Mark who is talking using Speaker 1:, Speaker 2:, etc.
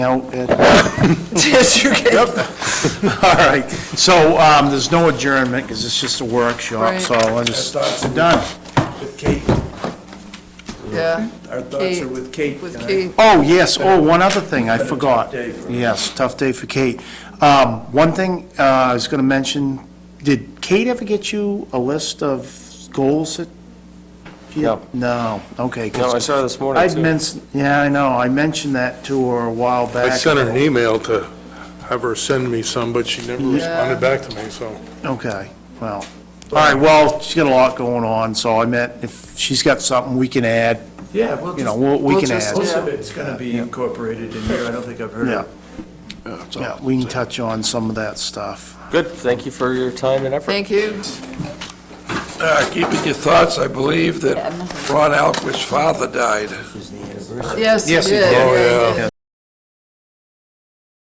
Speaker 1: Now, Yes, you can. All right, so um, there's no adjournment, because it's just a workshop,
Speaker 2: Right.
Speaker 1: so I just, we're done.
Speaker 3: With Kate,
Speaker 2: Yeah,
Speaker 3: our thoughts are with Kate.
Speaker 2: with
Speaker 3: tonight.
Speaker 2: Keith.
Speaker 1: Oh, yes, oh, one other thing, I
Speaker 3: Been a tough
Speaker 1: forgot.
Speaker 3: day for her.
Speaker 1: Yes, tough day for Kate. Um, One thing uh, I was going to mention, did Kate ever get you a list of goals that?
Speaker 4: No.
Speaker 1: No, okay. 'cause
Speaker 4: No, I saw this morning,
Speaker 1: I'd
Speaker 4: too.
Speaker 1: mentioned, yeah, I know, I mentioned that to her a while
Speaker 5: I
Speaker 1: back.
Speaker 5: sent her an email to have her send me some, but she never responded back to me, so.
Speaker 1: Okay, well, all right, well, she's got a lot going on, so I meant if she's got something we can add,
Speaker 3: Yeah, well,
Speaker 1: you
Speaker 3: just,
Speaker 1: know, we we
Speaker 2: We'll
Speaker 1: can
Speaker 2: just-
Speaker 1: add.
Speaker 3: most of it's going to be incorporated in here. I don't think I've heard
Speaker 1: Yeah,
Speaker 3: it.
Speaker 1: yeah, we can touch on some of that stuff.
Speaker 4: Good, thank you for your time and effort.
Speaker 2: Thank you.
Speaker 6: Uh, Keeping your thoughts, I believe that Ron Alquist's father died.
Speaker 2: Yes,
Speaker 1: Yes,
Speaker 2: you
Speaker 1: he
Speaker 2: did.
Speaker 1: did.
Speaker 2: Yeah,
Speaker 5: Oh,
Speaker 2: yeah,
Speaker 5: yeah.
Speaker 2: yeah.